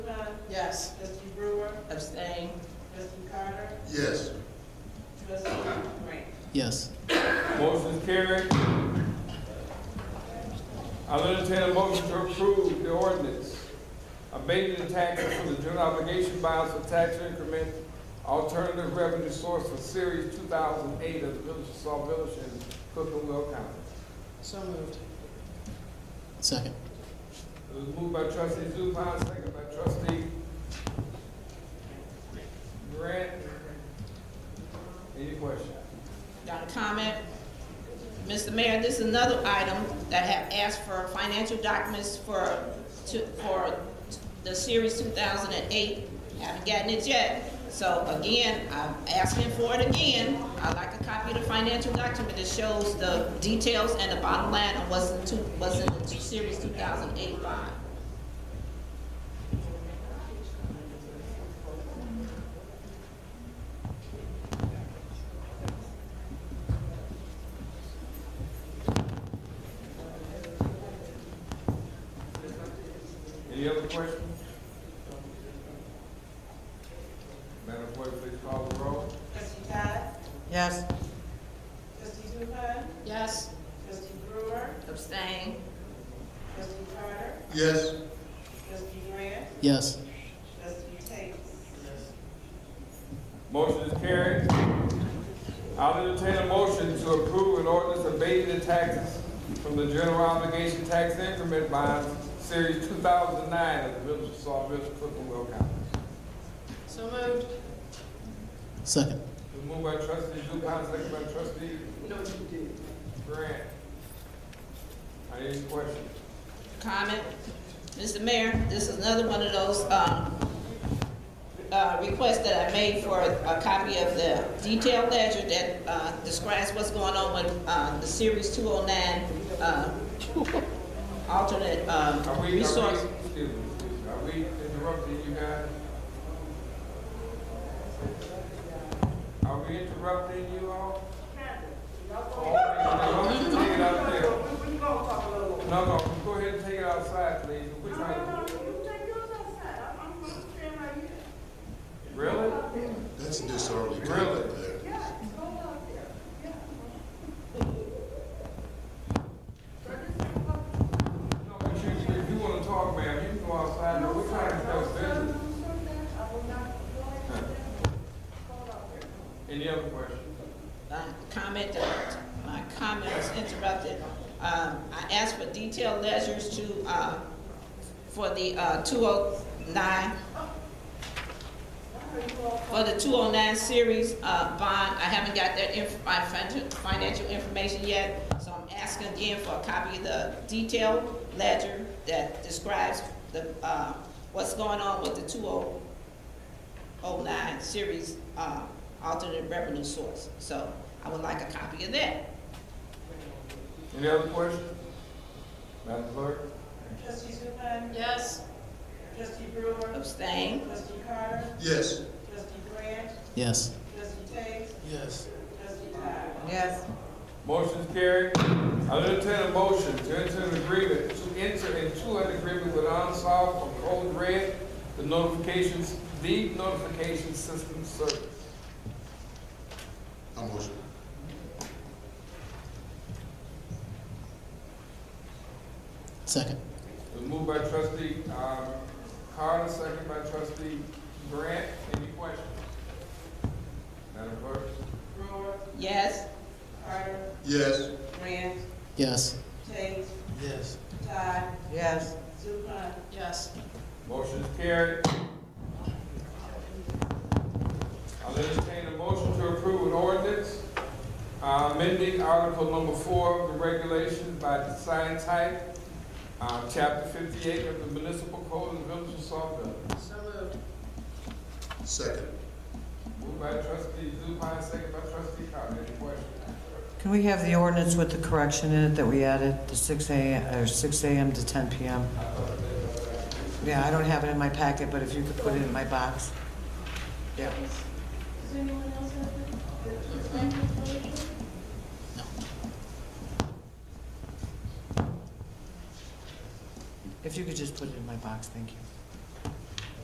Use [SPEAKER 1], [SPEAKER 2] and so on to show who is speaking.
[SPEAKER 1] Yes. Trustee Brewer? Abstain. Trustee Carter?
[SPEAKER 2] Yes.
[SPEAKER 1] Trustee Grant?
[SPEAKER 3] Yes.
[SPEAKER 4] Motion is carried. I'll entertain a motion to approve the ordinance abating the taxes for the general obligation bonds for tax increment alternative revenue source for series two thousand eight of the Village of Saw Village in Cook and Will County.
[SPEAKER 1] So moved.
[SPEAKER 3] Second.
[SPEAKER 4] It was moved by trustee Zupan, second by trustee Grant. Any questions?
[SPEAKER 1] Got a comment? Mr. Mayor, this is another item that have asked for financial documents for, to, for the series two thousand and eight. Haven't gotten it yet. So again, I'm asking for it again. I'd like a copy of the financial document that shows the details and the bottom line of what's in two, what's in the series two thousand and eight bond.
[SPEAKER 4] Any other questions? Madam Clerk, please call the roll.
[SPEAKER 5] Trustee Todd?
[SPEAKER 3] Yes.
[SPEAKER 5] Trustee Zupan?
[SPEAKER 1] Yes.
[SPEAKER 5] Trustee Brewer?
[SPEAKER 1] Abstain.
[SPEAKER 5] Trustee Carter?
[SPEAKER 2] Yes.
[SPEAKER 5] Trustee Grant?
[SPEAKER 3] Yes.
[SPEAKER 5] Trustee Tate?
[SPEAKER 4] Motion is carried. I'll entertain a motion to approve an ordinance abating the taxes from the general obligation tax increment bonds, series two thousand nine of the Village of Saw Village, Cook and Will County.
[SPEAKER 1] So moved.
[SPEAKER 3] Second.
[SPEAKER 4] It's moved by trustee Zupan, second by trustee. Grant. Any questions?
[SPEAKER 1] Comment? Mr. Mayor, this is another one of those, um, uh, requests that I made for a copy of the detailed ledger that, uh, describes what's going on with, uh, the Series two oh nine, uh, alternate, um,
[SPEAKER 4] Are we, are
[SPEAKER 1] resource.
[SPEAKER 4] we, excuse me, are we interrupting you guys? Are we interrupting you all? Oh, wait, no, Take it out there. No, no, go ahead and take it outside, please. We're trying to- Really?
[SPEAKER 2] That's a disorderly
[SPEAKER 4] Really?
[SPEAKER 2] conduct there.
[SPEAKER 4] No, but you, if you wanna talk, ma'am, you can go outside, but we're trying to help business. Any other questions?
[SPEAKER 1] uh, comment, that my comment was interrupted. Um, I asked for detailed measures to, uh, for the uh, 209, for the 209 series uh, bond. I haven't got that inf- my fin- financial information yet, so I'm asking again for a copy of the detailed ledger that describes the, uh, what's going on with the 20 09 series uh, alternate revenue source. So I would like a copy of that.
[SPEAKER 4] Any other questions? Madam Clerk?
[SPEAKER 5] Trustee Zupan?
[SPEAKER 1] Yes.
[SPEAKER 5] Trustee Brewer?
[SPEAKER 1] Abstain.
[SPEAKER 5] Trustee Carter?
[SPEAKER 2] Yes.
[SPEAKER 5] Trustee Grant?
[SPEAKER 3] Yes.
[SPEAKER 5] Trustee Tate?
[SPEAKER 3] Yes.
[SPEAKER 5] Trustee Todd?
[SPEAKER 1] Yes.
[SPEAKER 4] Motion is carried. I will entertain a motion to enter an agreement, to enter into an agreement with Unsolved on Code Red, the notifications, the notification system service.
[SPEAKER 2] I motion.
[SPEAKER 3] Second.
[SPEAKER 4] It was moved by trustee, um, Carter, second by trustee Grant. Any questions? Madam Clerk?
[SPEAKER 5] Brewer?
[SPEAKER 1] Yes.
[SPEAKER 5] Carter?
[SPEAKER 2] Yes.
[SPEAKER 5] Grant?
[SPEAKER 3] Yes.
[SPEAKER 5] Tate?
[SPEAKER 3] Yes.
[SPEAKER 5] Todd?
[SPEAKER 3] Yes.
[SPEAKER 5] Zupan?
[SPEAKER 1] Yes.
[SPEAKER 4] Motion is carried. I'll entertain a motion to approve an ordinance uh, amending Article Number Four of the regulations by design type, uh, Chapter fifty-eight of the Municipal Code of the Village of Saltville.
[SPEAKER 1] So moved.
[SPEAKER 2] Second.
[SPEAKER 4] Moved by trustee Zupan, second by trustee Carter. Any questions?
[SPEAKER 6] Can we have the ordinance with the correction in it that we added, the 6 a.m., or 6 a.m. to 10 p.m.? Yeah, I don't have it in my packet, but if you could put it in my box. Yeah.
[SPEAKER 5] Does anyone else have
[SPEAKER 6] If you could just put it in my box, thank you.